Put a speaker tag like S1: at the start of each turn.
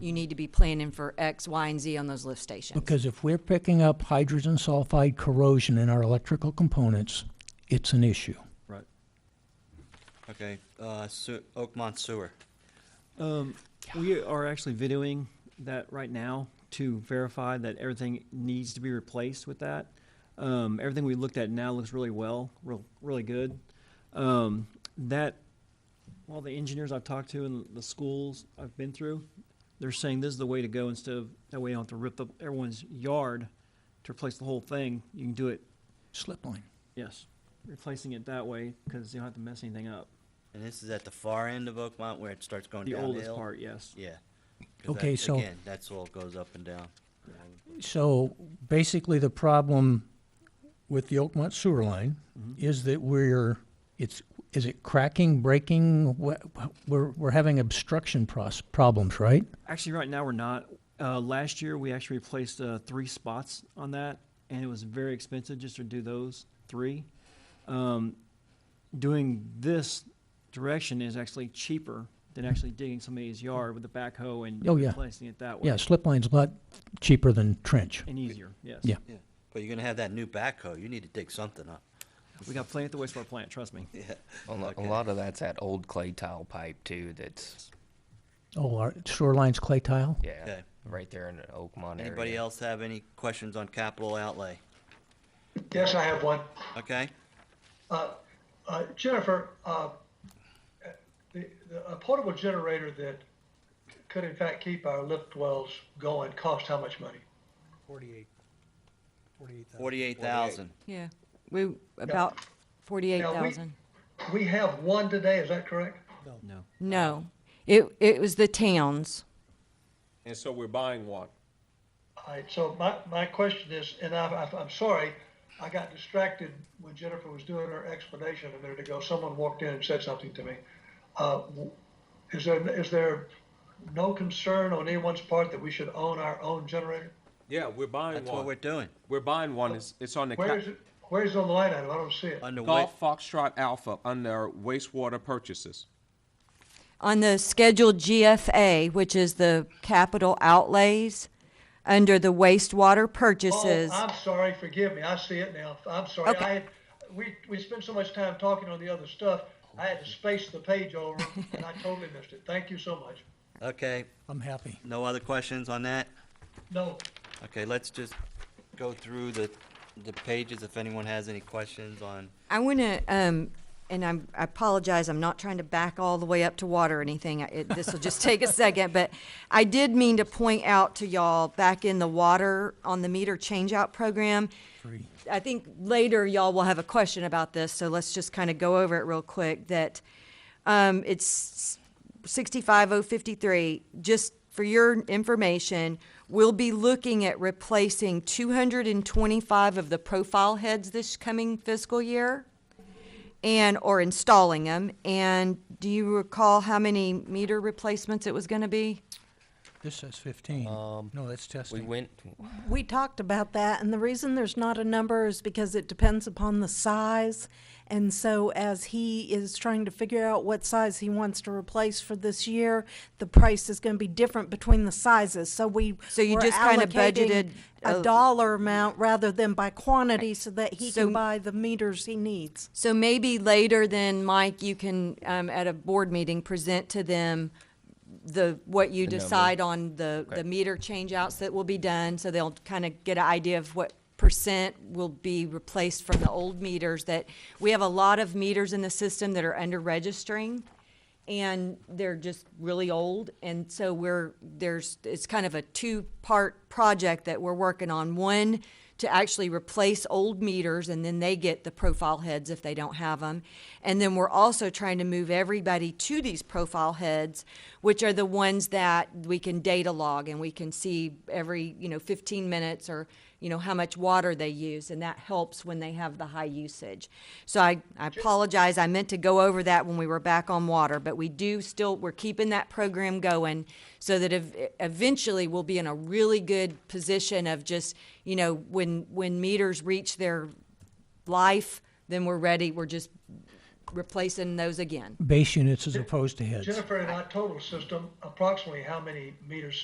S1: you need to be planning for X, Y, and Z on those lift stations.
S2: Because if we're picking up hydrogen sulfide corrosion in our electrical components, it's an issue.
S3: Right.
S4: Okay, uh, Su- Oakmont Sewer.
S3: Um, we are actually videoing that right now to verify that everything needs to be replaced with that. Um, everything we looked at now looks really well, real, really good. Um, that, all the engineers I've talked to and the schools I've been through, they're saying this is the way to go instead of, that way you don't have to rip up everyone's yard to replace the whole thing. You can do it,
S2: Slip line.
S3: yes, replacing it that way because you don't have to mess anything up.
S4: And this is at the far end of Oakmont where it starts going
S3: The
S4: downhill?
S3: oldest part, yes.
S4: Yeah. 'Cause
S2: Okay,
S4: that-
S2: so-
S4: Again, that's all goes up and down.
S2: So basically, the problem with the Oakmont sewer line is that we're, it's, is it cracking, breaking? Wha- We're, we're having obstruction pros, problems, right?
S3: Actually, right now we're not. Uh, last year we actually replaced uh, three spots on that, and it was very expensive just to do those three. Um, doing this direction is actually cheaper than actually digging somebody's yard with a backhoe and
S2: Oh, yeah.
S3: replacing it that way.
S2: Yeah, slip line's a lot cheaper than trench.
S3: And easier, yes.
S2: Yeah.
S4: Yeah. But you're gonna have that new backhoe, you need to dig something up.
S3: We got plenty at the wastewater plant, trust me.
S5: A, lo- a lot of that's that old clay tile pipe too. That's
S2: Oh, our sewer line's clay tile?
S5: yeah,
S4: Okay.
S5: right there in the Oakmont area.
S4: Anybody else have any questions on capital outlay?
S6: Yes, I have one.
S4: Okay,
S6: Uh, Jennifer, uh, the, the, a portable generator that could in fact keep our lift wells going cost how much money?
S7: Forty-eight. Forty-eight thousand.
S4: forty-eight thousand.
S1: Yeah, we, about forty-eight
S6: Now, we-
S1: thousand.
S6: We have one today, is that correct?
S3: No.
S1: No, it, it was the towns.
S8: And so we're buying one.
S6: All right, so my, my question is, and I, I, I'm sorry, I got distracted when Jennifer was doing her explanation a minute ago. Someone walked in and said something to me. Uh, w- is there, is there no concern on anyone's part that we should own our own generator?
S8: Yeah, we're buying
S4: That's what we're
S8: one.
S4: doing.
S8: We're buying one. It's, it's on the
S6: Where
S8: ca-
S6: is it, where is it on the line item? I don't see it.
S4: Under wa-
S8: Golf Foxtrot Alpha under wastewater purchases.
S1: On the scheduled GFA, which is the capital outlays, under the wastewater purchases.
S6: Oh, I'm sorry, forgive me, I see it now, I'm sorry,
S1: Okay.
S6: I, had- we, we spent so much time talking on the other stuff, I had to space the page over, and I totally missed it, thank you so much.
S4: Okay,
S2: I'm happy.
S4: no other questions on that?
S6: No,
S4: Okay, let's just go through the, the pages if anyone has any questions on,
S1: I want to, um, and I'm, I apologize, I'm not trying to back all the way up to water or anything. I- It, this will just take a second, but I did mean to point out to y'all back in the water on the meter changeout program. I think later y'all will have a question about this, so let's just kind of go over it real quick. That um, it's 65053, just for your information, we'll be looking at replacing 225 of the profile heads this coming fiscal year and, or installing them. And do you recall how many meter replacements it was going to be?
S2: This says fifteen. No, that's
S5: We
S2: testing.
S5: went.
S9: We talked about that, and the reason there's not a number is because it depends upon the size. And so, as he is trying to figure out what size he wants to replace for this year, the price is going to be different between the sizes. So we
S1: So you
S9: were
S1: just kinda
S9: allocating
S1: budgeted
S9: a
S1: a-
S9: dollar amount rather than by quantity, so that he
S1: So-
S9: can buy the meters he needs.
S1: So maybe later then, Mike, you can, um, at a board meeting, present to them the, what you
S5: The number.
S1: decide on the, the meter changeouts that will be done, so they'll kind of get an idea of what percent will be replaced from the old meters that, we have a lot of meters in the system that are under registering, and they're just really old, and so we're, there's, it's kind of a two-part project that we're working on. One, to actually replace old meters, and then they get the profile heads if they don't have them. And then we're also trying to move everybody to these profile heads, which are the ones that we can data log and we can see every, you know, 15 minutes or, you know, how much water they use, and that helps when they have the high usage. So I, I apologize, I meant to go over that when we were back on water, but we do still, we're keeping that program going so that ev- eventually we'll be in a really good position of just, you know, when, when meters reach their life, then we're ready, we're just replacing those again.
S2: Base units as opposed to heads.
S6: Jennifer, in our total system, approximately how many meters